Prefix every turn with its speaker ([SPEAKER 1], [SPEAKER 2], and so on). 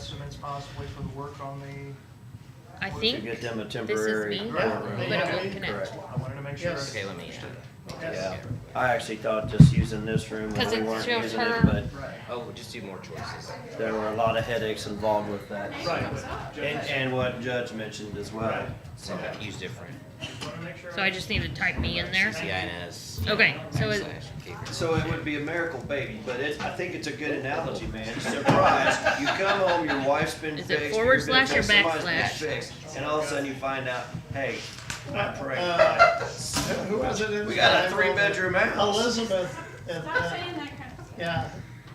[SPEAKER 1] possibly for the work on the,
[SPEAKER 2] I
[SPEAKER 1] To
[SPEAKER 2] think.
[SPEAKER 3] To get them a
[SPEAKER 2] this is
[SPEAKER 3] temporary.
[SPEAKER 2] me,
[SPEAKER 1] Right,
[SPEAKER 3] permit.
[SPEAKER 2] But
[SPEAKER 1] yeah.
[SPEAKER 2] it won't connect.
[SPEAKER 3] Correct.
[SPEAKER 1] I wanted to make sure.
[SPEAKER 4] Yes.
[SPEAKER 5] Okay, let me, uh,
[SPEAKER 3] Yeah,
[SPEAKER 1] Yes.
[SPEAKER 3] I actually thought just using this room, when
[SPEAKER 2] 'Cause
[SPEAKER 3] we
[SPEAKER 2] it's
[SPEAKER 3] weren't
[SPEAKER 2] just
[SPEAKER 3] using
[SPEAKER 2] her-
[SPEAKER 3] it, but
[SPEAKER 1] Right,
[SPEAKER 5] oh, we'll just do more choices.
[SPEAKER 3] there were a lot of headaches involved with that.
[SPEAKER 1] right. but
[SPEAKER 3] And,
[SPEAKER 1] just-
[SPEAKER 3] and what Judge mentioned as well.
[SPEAKER 1] Right.
[SPEAKER 5] So use different.
[SPEAKER 1] just wanna make sure
[SPEAKER 2] So I just need to type me in there.
[SPEAKER 5] CINS.
[SPEAKER 2] Okay, so it-
[SPEAKER 5] backslash Cape Breton.
[SPEAKER 3] So it would be a miracle baby, but it's, I think it's a good analogy, man. Surprise, you come home, your wife's been
[SPEAKER 2] Is
[SPEAKER 3] fixed.
[SPEAKER 2] it forward
[SPEAKER 3] you've been
[SPEAKER 2] slash or
[SPEAKER 3] fixed, somebody's been
[SPEAKER 2] backslash?
[SPEAKER 3] fixed, And all of a sudden you find out, hey, I prayed.
[SPEAKER 1] Uh, Who was it in?
[SPEAKER 3] We got a
[SPEAKER 1] I wrote-
[SPEAKER 3] three-bedroom house.
[SPEAKER 1] Elizabeth, at,
[SPEAKER 6] Stop
[SPEAKER 1] uh,
[SPEAKER 6] saying that crap.
[SPEAKER 1] yeah,